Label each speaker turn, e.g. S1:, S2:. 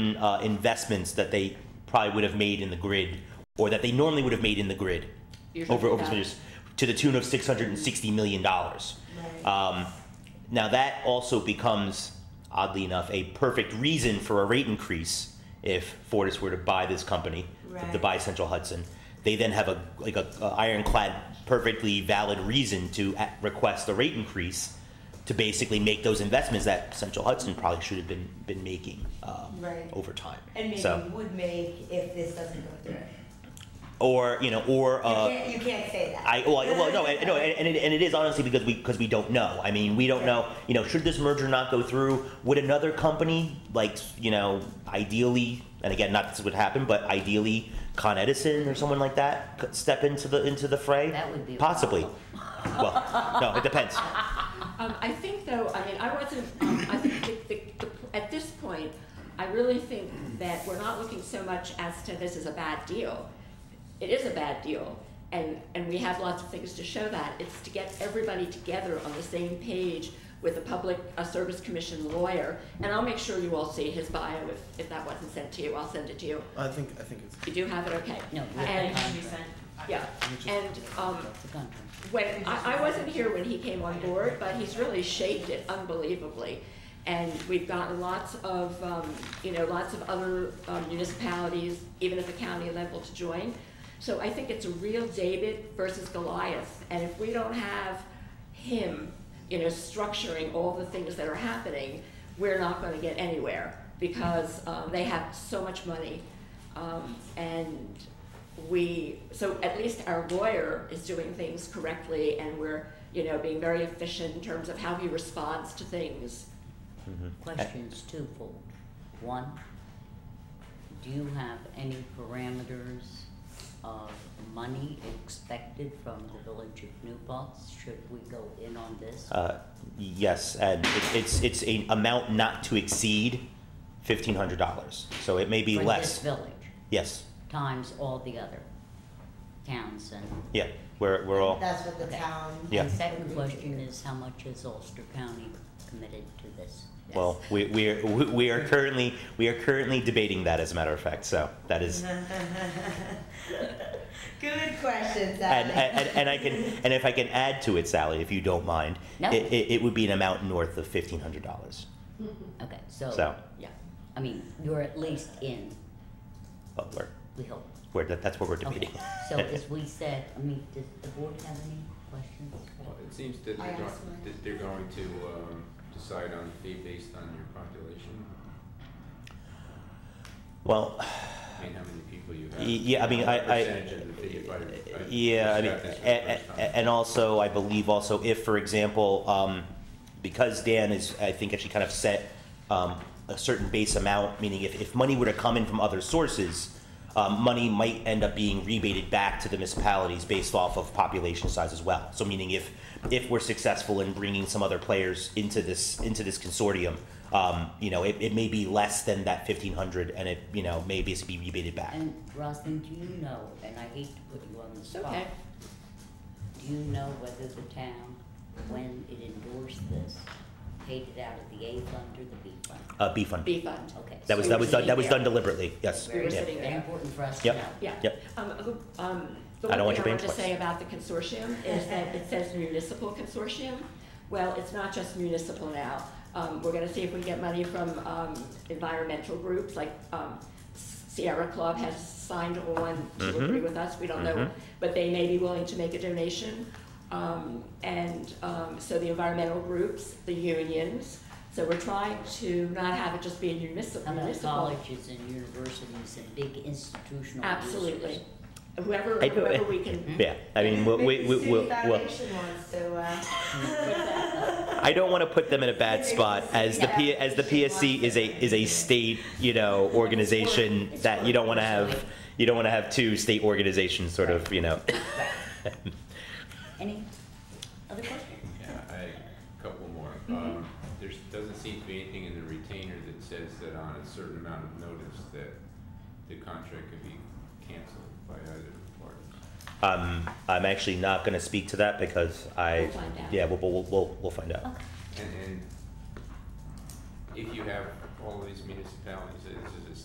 S1: uh, investments that they probably would have made in the grid or that they normally would have made in the grid
S2: You're
S1: over
S2: talking
S1: over
S2: about-
S1: some years to the tune of six hundred and sixty million dollars. Um, now that also becomes oddly enough a perfect reason for a rate increase if Fortis were to buy this company to
S3: Right.
S1: buy Central Hudson. They then have a like a, a ironclad, perfectly valid reason to a request a rate increase to basically make those investments that Central Hudson probably should have been been making um,
S3: Right.
S1: over time.
S3: And maybe
S1: so
S3: would make if this doesn't go through.
S1: or you know or uh,
S3: you, can't, you can't say that.
S1: I well, I- well no, and, no, and, and, it, and it is honestly because we because we don't know. I mean, we don't know. You know, should this merger not go through, would another company like you know, ideally, and again, not this would happen, but ideally, Con Edison or someone like that could step into the into the fray?
S2: That would be a
S1: possibly. Well, no, it depends.
S4: Um, I think though, I mean, I wasn't, um, I think the, the, the, at this point, I really think that we're not looking so much as to this is a bad deal. It is a bad deal, and, and we have lots of things to show that. It's to get everybody together on the same page with a public, a service commission lawyer, and I'll make sure you all see his bio if, if that wasn't sent to you, I'll send it to you.
S5: I think, I think it's.
S4: You do have it, okay?
S2: No, we
S4: And-
S2: have the contract,
S4: Yeah, and, um,
S2: the contract.
S4: when, I, I wasn't here when he came on board, but he's really shaped it unbelievably. And we've gotten lots of, um, you know, lots of other um, municipalities, even at the county level, to join. So I think it's a real David versus Goliath, and if we don't have him, you know, structuring all the things that are happening, we're not gonna get anywhere, because, um, they have so much money. Um, and we, so at least our lawyer is doing things correctly and we're, you know, being very efficient in terms of how he responds to things.
S2: Question's twofold. One, do you have any parameters of money expected from the village of New Paltz? Should we go in on this?
S1: Uh, yes, and it, it's it's an amount not to exceed fifteen hundred dollars. So it may be
S2: For this
S1: less.
S2: village,
S1: Yes.
S2: times all the other towns and.
S1: Yeah. We're we're all.
S3: That's what the
S2: Okay.
S3: town.
S1: Yeah.
S2: And second question is, how much is Ulster County committed to this?
S1: Well, we, we, are, we- we are currently we are currently debating that, as a matter of fact. So that is, and,
S3: Good question,
S1: and,
S3: Sally.
S1: and, and I can and if I can add to it, Sally, if you don't mind,
S2: No.
S1: it, it, it would be an amount north of fifteen hundred dollars.
S2: Okay, so.
S1: So.
S2: Yeah, I mean, you're at least in,
S1: But we're,
S2: we hope.
S1: we're that, that's what we're
S2: Okay,
S1: debating.
S2: so as we said, I mean, does the board have any questions?
S6: Well, it seems that
S3: I
S6: they're, go-
S3: asked mine.
S6: that they're going to, um, decide on the fee based on your population,
S1: well,
S6: I mean, how many people you have.
S1: Y- yeah, I mean, I-
S6: What
S1: I-
S6: Percentage of the fee, if I, I
S1: Yeah, I mean,
S6: described this for the
S1: a-
S6: first
S1: a-
S6: time.
S1: and also, I believe also if, for example, um, because Dan is, I think, actually kind of set um, a certain base amount, meaning if, if money were to come in from other sources, um, money might end up being rebated back to the municipalities based off of population size as well. So meaning if, if we're successful in bringing some other players into this, into this consortium, um, you know, it, it may be less than that fifteen hundred and it, you know, may basically be rebated back.
S2: And Rosalind, do you know, and I hate to put you on the
S4: It's
S2: spot.
S4: okay.
S2: Do you know whether the town, when it endorsed this, paid it out of the A fund or the B fund?
S1: Uh, B fund.
S4: B fund.
S2: Okay.
S1: That was
S2: so
S1: that
S2: we're
S1: was done, that
S2: sitting
S1: was
S2: there.
S1: done deliberately. Yes.
S4: We were
S1: Yeah.
S4: sitting
S2: Very
S4: there.
S2: important for us to
S1: Yep.
S2: know.
S4: Yeah.
S1: Yep.
S4: Um, who- um, the
S1: I don't
S4: one
S1: want you
S4: thing
S1: paying
S4: I want to
S1: twice.
S4: say about the consortium is that it says municipal consortium. Well, it's not just municipal now. Um, we're gonna see if we can get money from, um, environmental groups, like, um, Sierra Club has signed on to
S1: Mhm.
S4: agree with us, we don't know,
S1: Mhm.
S4: but they may be willing to make a donation. Um, and, um, so the environmental groups, the unions, so we're trying to not have it just be a municipal,
S2: How about
S4: municipal.
S2: colleges and universities and big institutional Hmm? users?
S4: Absolutely. Whoever,
S1: I know,
S4: whoever
S1: eh,
S4: we can.
S1: Yeah. I mean, we we we we'll, we'll,
S3: wants to, uh,
S1: I don't want to put them in a bad spot as the P, as the PSC is a is a state you know organization that you don't want to have you don't want to have two state organizations sort of you know.
S2: Any other questions?
S6: Yeah, I, couple more.
S3: Mm-hmm.
S6: Um, there's, doesn't seem to be anything in the retainer that says that on a certain amount of notice that the contract could be canceled by either party.
S1: Um, I'm actually not going to speak to that because I
S4: We'll find out.
S1: yeah we'll we'll we'll, we'll find out.
S2: Okay.
S6: And, and if you have all of these municipalities, this is a